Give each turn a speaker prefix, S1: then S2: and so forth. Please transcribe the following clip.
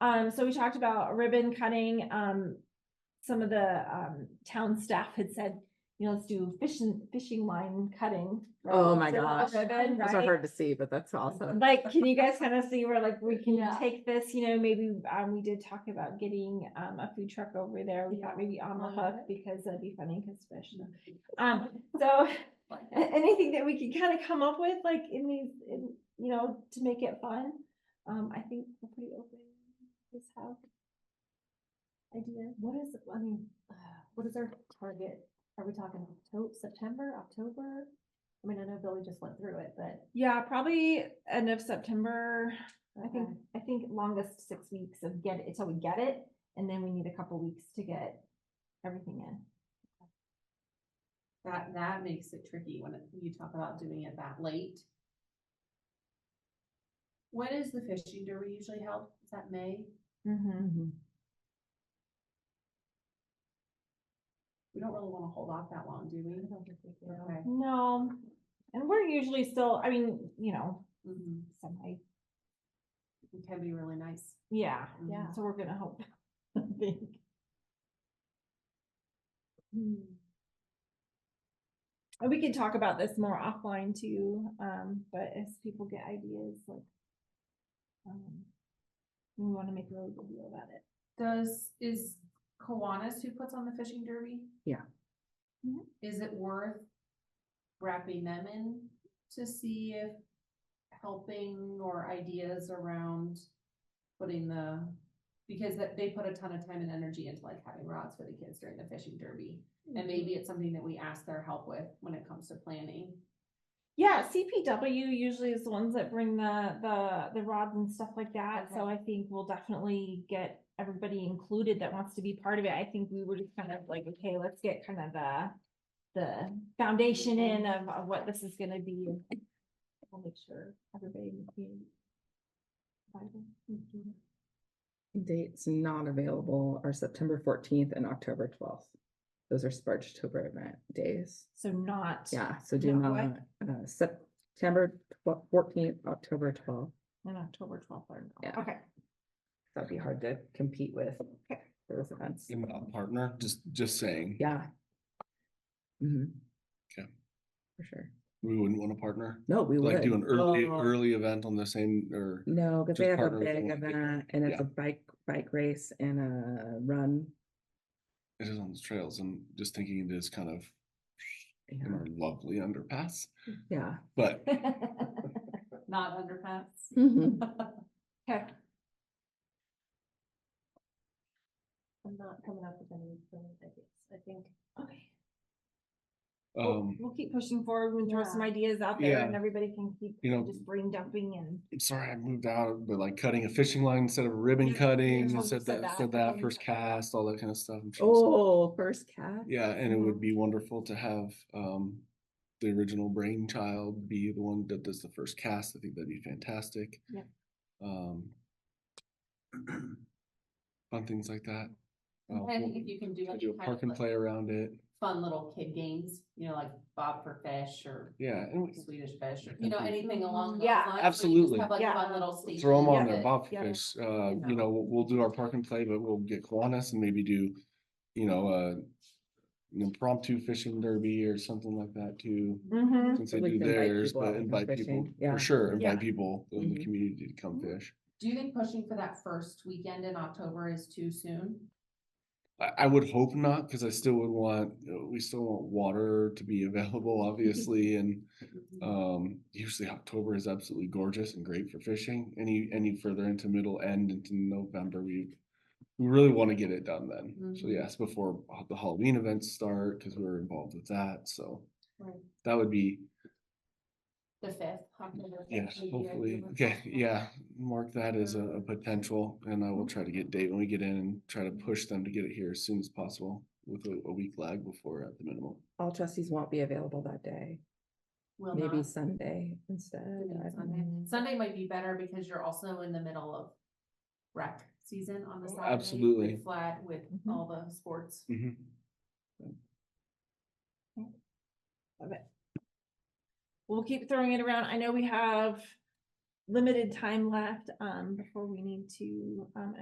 S1: Um, so we talked about ribbon cutting, um, some of the, um, town staff had said, you know, let's do fishing, fishing line cutting.
S2: Oh my
S1: So, uh,
S2: gosh.
S1: ribbon,
S2: Those are
S1: right?
S2: hard to see, but that's awesome.
S1: Like, can you guys kind of see where like we can
S3: Yeah.
S1: take this, you know, maybe, um, we did talk about getting, um, a food truck over there. We thought maybe on the
S3: On the hook.
S1: hook because that'd be funny because fish. Um, so a- anything that we can kind of come up with like in these, in, you know, to make it fun. Um, I think we're pretty open. Just have ideas.
S3: What is, I mean, uh, what is our target? Are we talking October, September, October? I mean, I know Billy just went through it, but.
S1: Yeah, probably end of September. I think,
S3: okay.
S1: I think longest six weeks of get it, so we get it, and then we need a couple weeks to get everything in.
S4: That, that makes it tricky when it- you talk about doing it that late. When is the fishing derby usually held? Is that May?
S1: Mm-hmm.
S4: We don't really wanna hold off that long, do
S3: I
S4: we?
S3: don't think we can.
S4: Okay.
S1: No, and we're usually still, I mean, you know,
S4: Mhm.
S1: semi,
S4: It can be really nice.
S1: yeah,
S4: Mhm.
S3: Yeah.
S1: so we're gonna hope. I think. And we can talk about this more offline too, um, but as people get ideas, like. um, We wanna make a really good deal about it.
S4: Does, is Kiwanis who puts on the fishing derby? Mm-hmm.
S2: Yeah.
S1: Mhm.
S4: Is it worth wrapping them in to see if helping or ideas around putting the, because that they put a ton of time and energy into like having rods for the kids during the fishing derby. And maybe it's something that we ask their help with when it comes to planning.
S1: Yeah, CPW usually is the ones that bring the, the, the rods and stuff like that, so I think we'll definitely get everybody included that wants to be part of it, I think we were just kind of like, okay, let's get kind of the. The foundation in of, of what this is gonna be. and We'll make sure everybody. in the community buys
S2: Dates not available are September fourteenth and October twelfth. Those are Sparchtober event days.
S1: it. So not.
S2: Yeah, so do
S1: No,
S2: not, uh, September fourteenth, October twelfth.
S1: On October twelfth or,
S2: Yeah.
S1: okay,
S2: That'd be hard to compete with those events.
S5: Even a partner, just, just saying.
S2: Yeah. Mhm.
S5: Okay.
S2: For sure.
S5: We wouldn't want to partner,
S2: No, we would.
S5: like do an early,
S2: Oh.
S5: early event on the same, or,
S2: No, because
S5: Just
S2: they have a
S5: partner with the
S2: big
S5: one that they-
S2: event and it's
S5: yeah.
S2: a bike, bike race and a run.
S5: it is on the trails, I'm just thinking it is kind of in
S2: Yeah.
S5: our lovely underpass,
S2: Yeah.
S5: but
S4: Not underpants.
S1: Mm.
S2: Mhm.
S1: okay,
S3: I'm not coming up with any brilliant ideas. I think
S1: okay. We'll,
S5: um,
S1: we'll keep pushing forward and throw some
S3: Yeah.
S1: ideas out there
S5: Yeah.
S1: and everybody can keep
S5: You know-
S1: just brain dumping and.
S5: I'm sorry I moved out, but like cutting a fishing line instead of ribbon
S1: Yeah,
S5: cutting,
S1: yeah,
S5: you
S1: said
S5: said that,
S1: that,
S5: said that,
S1: ribbon
S5: first
S1: cutting.
S5: cast, all that kind of stuff. I'm sure it's-
S2: Oh, first cat.
S5: Yeah, and it
S1: Mhm.
S4: Mm-hmm.
S5: would be wonderful to have, um, the original brainchild be the one that does the first cast, I think that'd be fantastic.
S1: Yeah.
S5: Um. Fun things like that. Uh,
S4: I think
S5: we'll-
S4: if you can do
S5: Can
S4: like
S5: do a
S4: kind
S5: park
S4: of
S5: and
S4: like
S5: play around it.
S4: fun little kid games, you know, like Bob for Fish or
S5: Yeah, and we
S4: Swedish Fish or, you know,
S5: Mhm.
S4: anything along those lines.
S1: Yeah.
S4: where you just
S5: Absolutely.
S4: Have like
S1: Yeah.
S4: fun little stations.
S5: throw them on
S4: that-
S5: there, Bob
S1: yeah.
S5: Fish. Uh,
S4: You
S5: you know, we'll, we'll do our park and play, but we'll get Kiwanis and maybe do, you know, uh, an impromptu fishing derby or something like that too.
S2: Mm-hmm.
S1: Mhm.
S5: Since they
S2: We
S5: do
S2: can invite
S5: theirs,
S2: people out
S5: but
S2: to come
S5: invite people,
S2: fishing, yeah.
S5: for sure,
S1: Yeah.
S5: invite people in the
S2: Mhm.
S5: community to come fish.
S4: Do you think pushing for that first weekend in October is too soon?
S5: I, I would hope not, because I still would want, uh, we still want water to be available,
S2: Mm-hmm.
S5: obviously, and Um, usually October is absolutely gorgeous and great for fishing. Any, any further into middle end into November, we, we really want to get it done then.
S2: Mm-hmm.
S5: So
S4: Mhm.
S5: yes, before ha- the Halloween events start, because we were involved with that, so
S4: Right.
S5: that would be,
S4: The fifth. October fifth
S5: yes,
S4: would be
S5: hopefully,
S4: ideal.
S5: okay, yeah. Mark that as a, a potential and I will try to get date when we get in and try to push them to get it here as soon as possible with a, a week lag before at the minimum.
S2: All trustees won't be available that day,
S4: Will
S2: maybe
S4: not.
S2: Sunday instead.
S4: Maybe
S2: I don't
S4: Sunday.
S2: know.
S4: Sunday might be better because you're also in the middle of rec season on the
S5: Oh,
S4: side.
S5: absolutely.
S4: Flat with
S1: Mhm.
S4: all the sports.
S5: Mhm.
S1: We'll keep throwing it around. I know we have limited time left, um, before we need to, um,